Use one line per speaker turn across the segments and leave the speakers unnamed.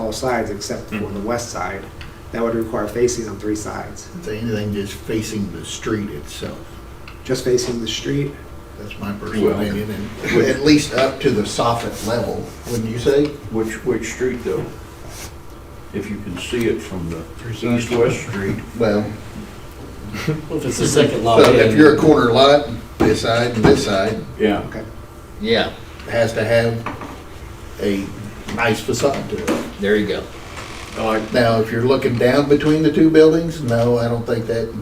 all sides except for the west side. That would require facing on three sides,
If anything, just facing the street itself.
just facing the street.
That's my personal
Well-
opinion, and at least up to the soffit level, wouldn't you say?
Which, which street though? If you can see it from the east-west street,
Well,
Well, if it's the second
Oh,
lot
so if
in,
you're a corner lot, this side and this side,
yeah.
Okay,
yeah, has to have a nice facade to it. There you go.
I like
Now, if you're looking down between the two buildings, no, I don't think that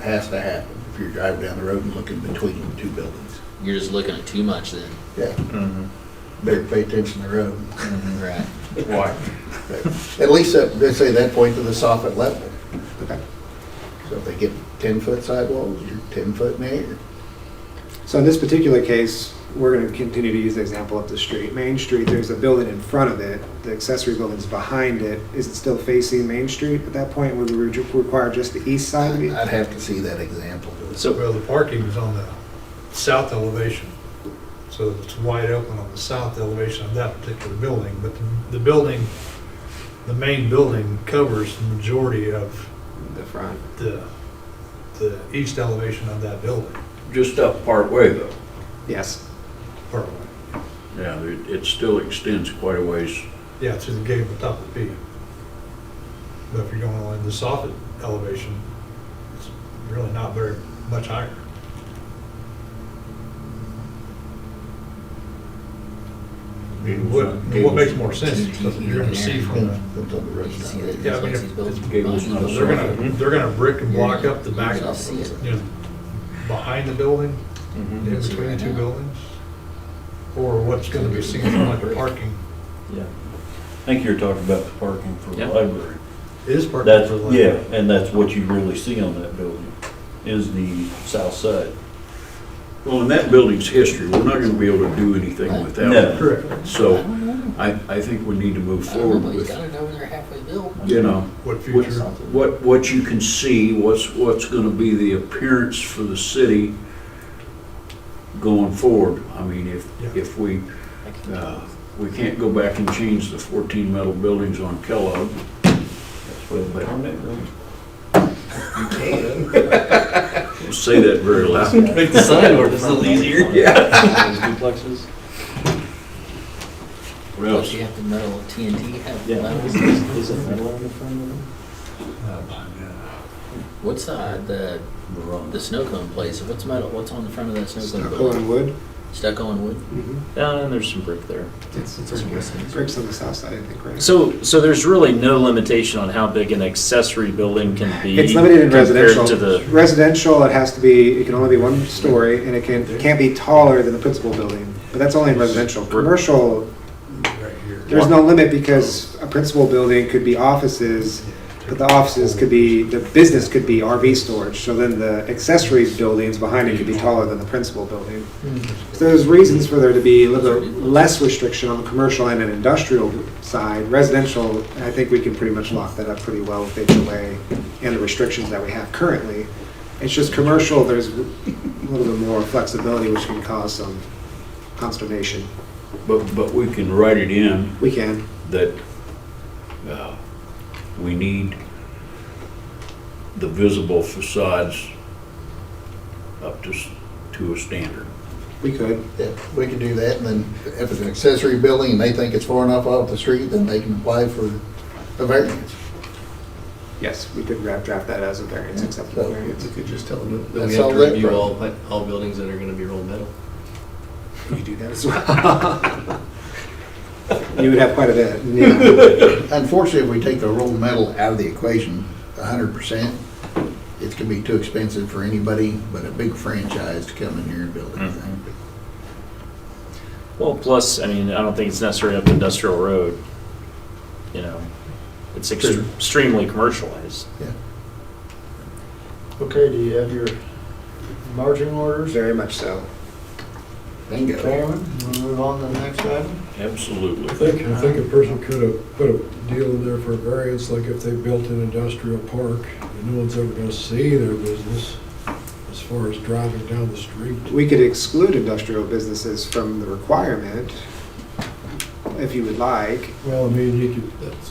has to happen. If you're driving down the road and looking between the two buildings,
You're just looking at too much then.
yeah.
Mm-hmm.
Better pay attention to the road.
Right.
white.
At least, up- they say that point to the soffit level.
okay.
So if they get ten-foot sidewalls, you're ten-foot in the air.
So in this particular case, we're going to continue to use the example of the street. Main Street, there's a building in front of it, the accessory building's behind it. Is it still facing Main Street at that point? Would we re- require just the east side? to be-
I'd have to see that example.
So,
Well, the parking is on the south elevation, so it's wide open on the south elevation of that particular building. But the- the building, the main building covers the majority of
The front.
the, the east elevation of that building.
Just up part way though.
Yes,
Or,
Yeah, it, it still extends quite a ways.
Yeah, to the gable top of the peak. But if you're going on the soffit elevation, it's really not very much higher. I mean, What, what makes more sense, is that you're gonna see from the,
That's on the road.
You see that
Yeah, I mean,
it's-
if-
it's built
Gable's not
behind it.
a
they're gonna, they're gonna brick and block up the back,
You're gonna see it.
you know, behind the building, in between the two buildings. Or what's gonna be seen from like the parking,
Yeah, I think you're talking about the parking for the
Yeah.
library.
is parking
That's,
for like.
yeah, and that's what you really see on that building, is the south side.
Well, in that building's history, we're not gonna be able to do anything with that.
No.
Correct.
one. So I, I think we need to move
I don't
forward
know, but he's
with,
got it over there halfway built.
you know,
What
What's-
future,
what, what you can see, what's, what's gonna be the appearance for the city going forward. I mean, if,
Yeah.
if we Uh, We can't go back and change the 14 metal buildings on Kellogg.
That's where the permit room.
Don't Say that very loud.
make the sign ordinance a little easier.
Duplexes.
What
Plus
else?
you have to metal TNT, have
Yeah.
levels.
Is it metal on the front of them?
What's the, the, the snow cone place? What's metal, what's on the front of that snow cone
stucco
building?
and wood.
Stucco and wood?
Mhm.
Uh, and there's some brick there.
It's Bricks on the south side, I think, right?
So, so there's really no limitation on how big an accessory building can be.
It's limited in
compared
residential.
To the,
Residential, it has to be, it can only be one story, and it can, it can't be taller than the principal building, but that's only in residential. Commercial,
right here.
there's no limit because a principal building could be offices, but the offices could be, the business could be RV storage, so then the accessories buildings behind it could be taller than the principal building. So there's reasons for there to be a little bit less restriction on the commercial and an industrial side. Residential, I think we can pretty much lock that up pretty well with HOA and the restrictions that we have currently. It's just commercial, there's a little bit more flexibility, which can cause some consternation.
But, but we can write it in
We can,
that uh, we need the visible facades up to, s- to a standard.
we could.
Yeah, we could do that, and then if it's an accessory building and they think it's far enough off the street, then they can apply for a variance.
Yes, we could draft, draft that as a variance, acceptable variance.
could just tell them.
Then we have to review all, but all buildings that are gonna be rolled metal.
You could do that as well. You would have quite a bit, yeah.
Unfortunately, if we take the rolled metal out of the equation, a hundred percent, it's gonna be too expensive for anybody but a big franchise to come in here and build anything.
Mm-hmm.
well, plus, I mean, I don't think it's necessarily up Industrial Road. You know, it's
True.
ext- extremely commercialized.
Okay, do you have your marching orders,
Very much so.
Bingo.
Chairman? We'll move on to the next item.
Absolutely.
think, I think a person could have put a deal in there for variance, like if they built an industrial park, and no one's ever gonna see their business as far as driving down the street.
We could exclude industrial businesses from the requirement, if you would like.
Well, I mean, you could,